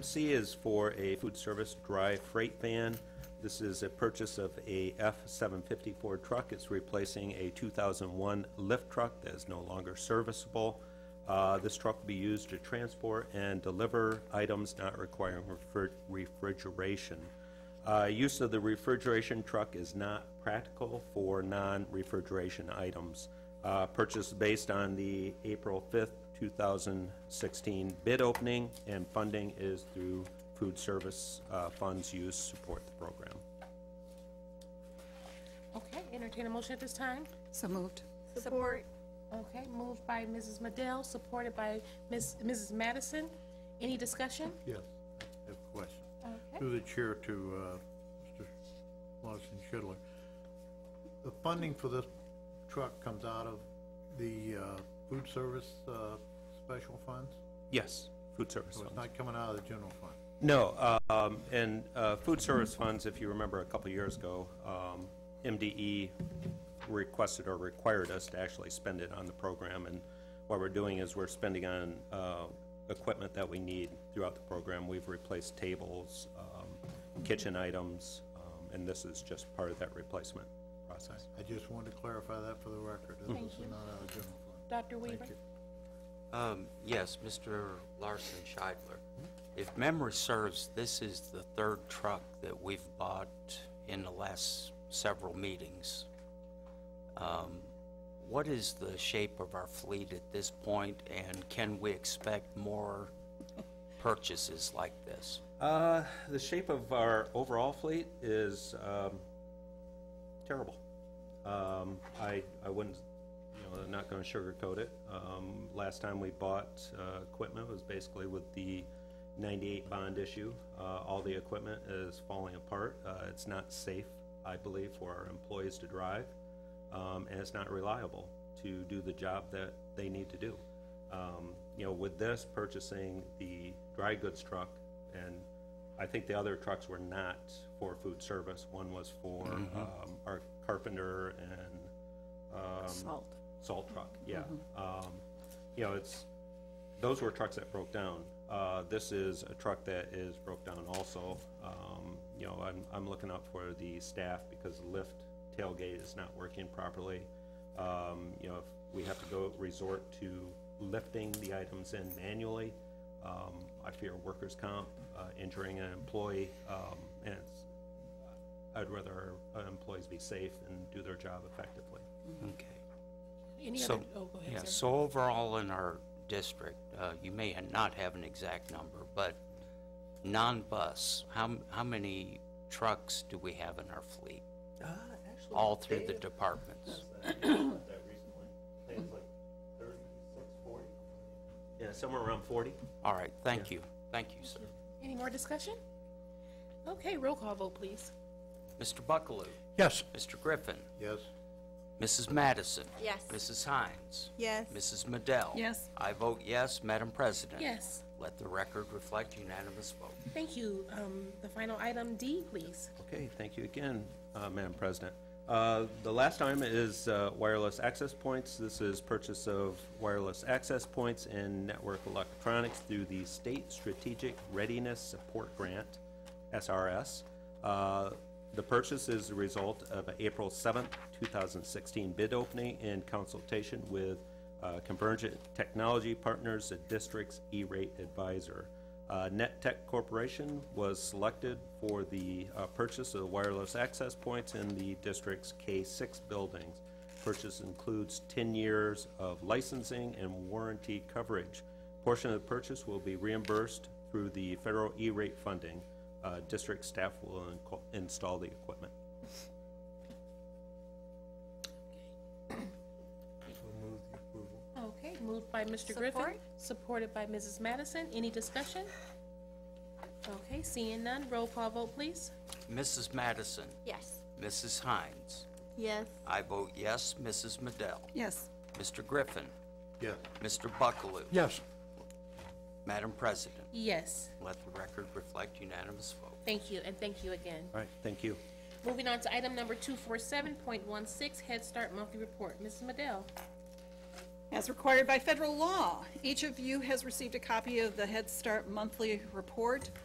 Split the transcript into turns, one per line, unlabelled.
C is for a food service dry freight van. This is a purchase of a F-750 Ford truck. It's replacing a 2001 lift truck that is no longer serviceable. Uh, This truck will be used to transport and deliver items not requiring refri- refrigeration. Uh, Use of the refrigeration truck is not practical for non-refrigeration items. Uh, Purchase based on the April 5th, 2016 bid opening, and funding is through food service uh, funds used to support the program.
Okay, entertain a motion at this time.
So moved.
Support.
Okay, moved by Mrs. Madell, supported by Ms. Mrs. Madison. Any discussion?
Yes, I have a question.
Okay.
Through the chair to uh, Mr. Lawson Schidler. The funding for this truck comes out of the uh, food service uh, special funds?
Yes, food service
So
funds.
it's not coming out of the general fund?
No, um, and uh, food service funds, if you remember a couple years ago, um, MDE requested or required us to actually spend it on the program, and what we're doing is we're spending on uh, equipment that we need throughout the program. We've replaced tables, um, kitchen items, um, and this is just part of that replacement process.
I just wanted to clarify that for the record. This is not out of the general fund.
Dr. Weaver?
Um, Yes, Mr. Larson Scheidler. If memory serves, this is the third truck that we've bought in the last several meetings. Um, What is the shape of our fleet at this point, and can we expect more purchases like this?
Uh, The shape of our overall fleet is um, terrible. Um, I, I wouldn't, you know, I'm not going to sugarcoat it. Um, Last time we bought uh, equipment was basically with the 98 bond issue. Uh, All the equipment is falling apart. Uh, It's not safe, I believe, for our employees to drive, um, and it's not reliable to do the job that they need to do. Um, You know, with this, purchasing the dry goods truck, and I think the other trucks were not for food service. One was for um, our carpenter and um,
Salt.
salt truck, yeah. Um, You know, it's, those were trucks that broke down. Uh, This is a truck that is broke down also. Um, You know, I'm, I'm looking out for the staff because the lift tailgate is not working properly. Um, You know, if we have to go resort to lifting the items in manually, um, I fear workers' comp, uh, injuring an employee, um, and it's, I'd rather our employees be safe and do their job effectively.
Okay.
Any
So-
other, oh, go
Yeah,
ahead, sir.
so overall in our district, uh, you may ha- not have an exact number, but non-bus, how, m- how many trucks do we have in our fleet? All through the departments?
Yeah, somewhere around 40.
All right, thank you, thank you, sir.
Any more discussion? Okay, roll call vote, please.
Mr. Buckaloo,
Yes.
Mr. Griffin,
Yes,
Mrs. Madison.
Yes.
Mrs. Hines.
Yes.
Mrs. Madell.
Yes.
I vote yes, Madam President.
Yes,
Let the record reflect unanimous vote.
thank you. Um, The final item D, please.
Okay, thank you again, uh, Madam President. Uh, The last item is uh, wireless access points. This is purchase of wireless access points and network electronics through the State Strategic Readiness Support Grant, SRS. Uh, The purchase is the result of an April 7th, 2016 bid opening in consultation with uh, Convergent Technology Partners, the district's E-rate advisor. Uh, Net Tech Corporation was selected for the uh, purchase of wireless access points in the district's K-6 buildings. Purchase includes 10 years of licensing and warranty coverage. Portion of the purchase will be reimbursed through the federal E-rate funding. Uh, District staff will inco- install the equipment.
Okay, moved by Mr. Griffin,
Support.
supported by Mrs. Madison. Any discussion? Okay, seeing none, roll call vote, please.
Mrs. Madison,
Yes.
Mrs. Hines.
Yes.
I vote yes, Mrs. Madell.
Yes.
Mr. Griffin.
yes.
Mr. Buckaloo.
Yes.
Madam President,
Yes,
let the record reflect unanimous vote.
thank you, and thank you again.
All right, thank you.
Moving on to item number two four seven point one six, Head Start Monthly Report. Mrs. Madell.
As required by federal law, each of you has received a copy of the Head Start Monthly Report